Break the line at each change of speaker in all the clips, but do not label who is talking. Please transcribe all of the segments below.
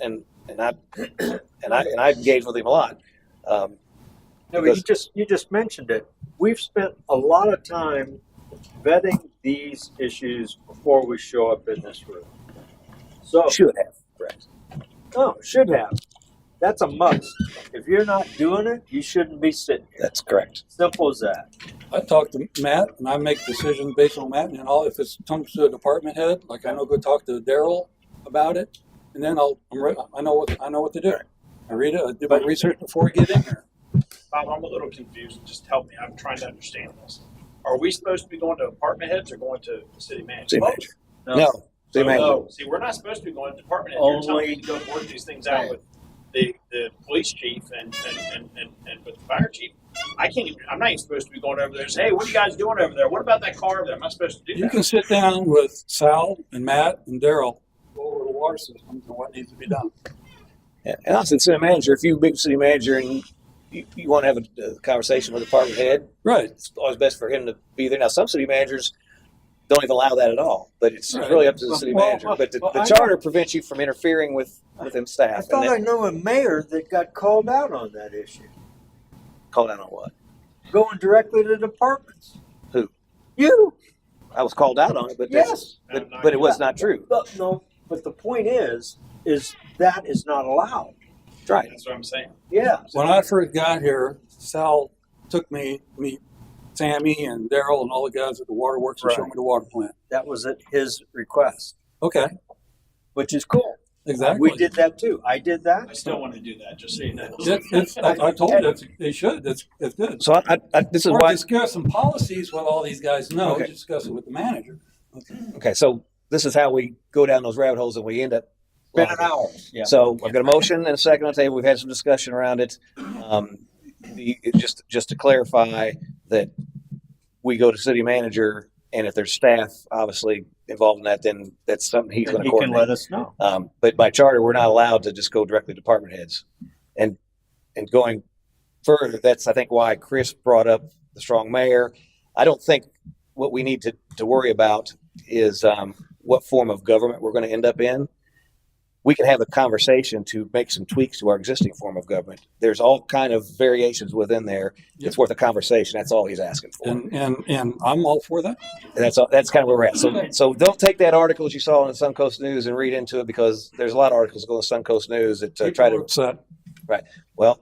and and I and I and I engage with him a lot. Um,
No, but
Because-
you just you just mentioned it. We've spent a lot of time vetting these issues before we show up in this room. So
Should have.
no, should have. That's a must. If you're not doing it, you shouldn't be sitting here.
That's correct.
Simple as that.
I talk to Matt and I make decisions based on Matt and all. If it comes to a department head, like I know, go talk to Daryl about it, and then I'll I'm re- I know what I know what to do. I read it. I do my research before I get in here.
Bob, I'm a little confused. Just help me. I'm trying to understand this. Are we supposed to be going to apartment heads or going to the city manager?
City manager. No, city
So,
manager.
no. See, we're not supposed to be going to department heads. You're telling me
Only-
to go work these things out with the, the police chief and, and, and, and, and with the fire chief. I can't even, I'm not even supposed to be going over there and say, hey, what are you guys doing over there? What about that car over there? Am I supposed to do
You
that?
can sit down with Sal and Matt and Daryl go over the water systems and what needs to be done.
And and also, city manager. If you're a big city manager and you, you want to have a, a conversation with the department head,
Right.
it's always best for him to be there. Now, some city managers don't even allow that at all, but it's
Right.
really up to the city
Well,
manager.
well,
But the,
well,
the
I-
charter prevents you from interfering with with him staff.
I
and
thought
that-
I knew a mayor that got called out on that issue.
called out on what?
Going directly to departments.
Who?
You.
I was called out on it, but that's-
Yes.
but, but it was not true.
But no, but the point is, is that is not allowed.
Right.
That's what I'm saying.
Yeah.
When I first got here, Sal took me to meet Sammy and Daryl and all the guys at the waterworks and showed me the water plant.
That was at his request,
Okay,
which is cool.
exactly.
We did that too. I did
I
that.
still want to do that, just so you know.
It- it's- I I told you, it's- they should, it's, it's good.
So I, I, I, this is
Or
why.
discuss some policies, what all these guys know,
Okay.
discuss it with the manager.
Okay, so this is how we go down those rabbit holes and we end up.
Been an hour. Yeah.
So I've got a motion and a second on the table. We've had some discussion around it. Um, the, it- just just to clarify that we go to city manager, and if there's staff obviously involved in that, then that's something he's going to
he can
coordinate.
let us know.
Um, but by charter, we're not allowed to just go directly to department heads. And and going further, that's I think why Chris brought up the strong mayor. I don't think what we need to, to worry about is um, what form of government we're going to end up in. We can have a conversation to make some tweaks to our existing form of government. There's all kind of variations within there. It's
Yep.
worth a conversation. That's all he's asking for.
And, and, and I'm all for that.
And that's all, that's kind of where we're at. So, so don't take that article that you saw in the Suncoast News and read into it because there's a lot of articles going to Suncoast News that uh, try
People are
to.
upset.
Well,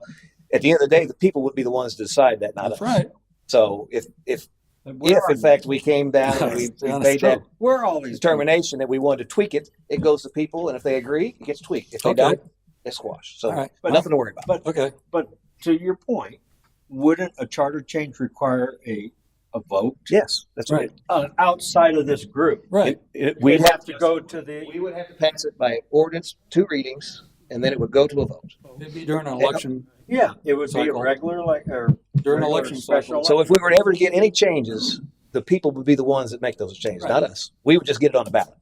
at the end of the day, the people would be the ones to decide that, not us.
That's right.
So, if if
Where
if
are
in
you?
fact we came down and we,
That's
we
honest
made that
truth.
We're all these
determination that we wanted to tweak it, it goes to people, and if they agree, it gets tweaked. If they
Okay.
don't, it's squashed. So,
All right.
But-
nothing to worry about.
Okay,
To your point, wouldn't a charter change require a a vote
Yes, that's
right,
uh, outside of this group?
right.
we
We'd have to go to the.
we would have to pass it by ordinance, two readings, and then it would go to a vote.
It'd be during an election,
oh,
Yeah, it would be a
Cycle.
regular like or Regular
during an election
special
cycle.
So if we were ever to get any changes, the people would be the ones that make those changes,
Right.
not us. We would just get it on the ballot.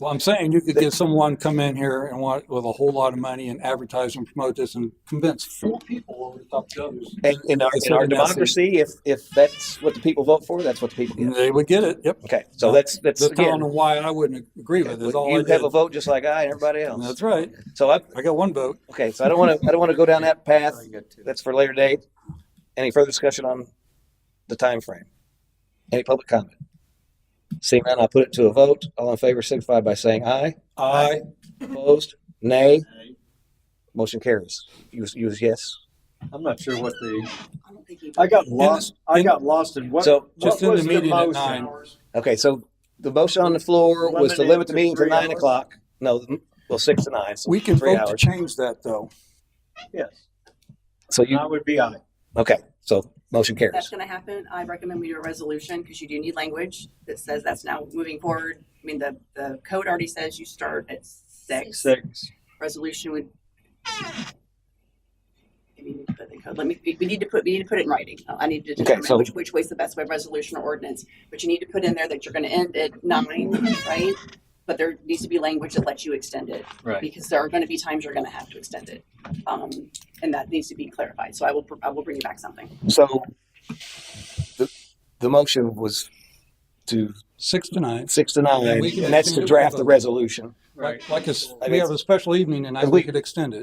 Well, I'm saying you could get someone come in here and want, with a whole lot of money and advertise and promote this and convince four people over the top of the others.
And in our, in our
Consider that-
democracy, if if that's what the people vote for, that's what the people
And
get.
they would get it, yep.
Okay, so that's that's
That's telling
again,
them why I wouldn't agree with it, is all I
you
did.
have a vote just like I and everybody else.
That's right.
So I
I got one vote.
okay, so I don't want to I don't want to go down that path.
That's
That's for later date. Any further discussion on the time frame? Any public comment? Seeing none, I'll put it to a vote. All in favor signify by saying aye.
I,
Opposed? Nay? Motion carries. You, you was yes.
I'm not sure what the
I don't think you
I got lost. I got lost in what.
So,
just in
what
the
was
meeting at
motion?
nine.
okay, so the motion on the floor was to
Eliminate
limit the
to
meeting to
three
nine
hours?
o'clock. No, mm, well, six to nine, so
we can
three
vote to
hours.
change that though.
Yes,
So you,
that would be I.
okay, so motion
that's
carries.
going to happen, I recommend we do a resolution because you do need language that says that's now moving forward. I mean, the, the code already says you start at six.
Six.
Resolution would. I mean, but the code- Let me, we we need to put, we need to put it in writing. I need to
Okay,
determine
so-
which, which way's the best way, resolution or ordinance. But you need to put in there that you're going to end at nine, right? But there needs to be language that lets you extend it.
Right.
because there are going to be times you're going to have to extend it. Um, and that needs to be clarified. So I will, I will bring you back something.
So the, the motion was to
Six to nine.
six to nine,
And we can-
and that's to draft the resolution.
Like, like a s- we
mean,
have a special evening and I
Because we-
we could extend it.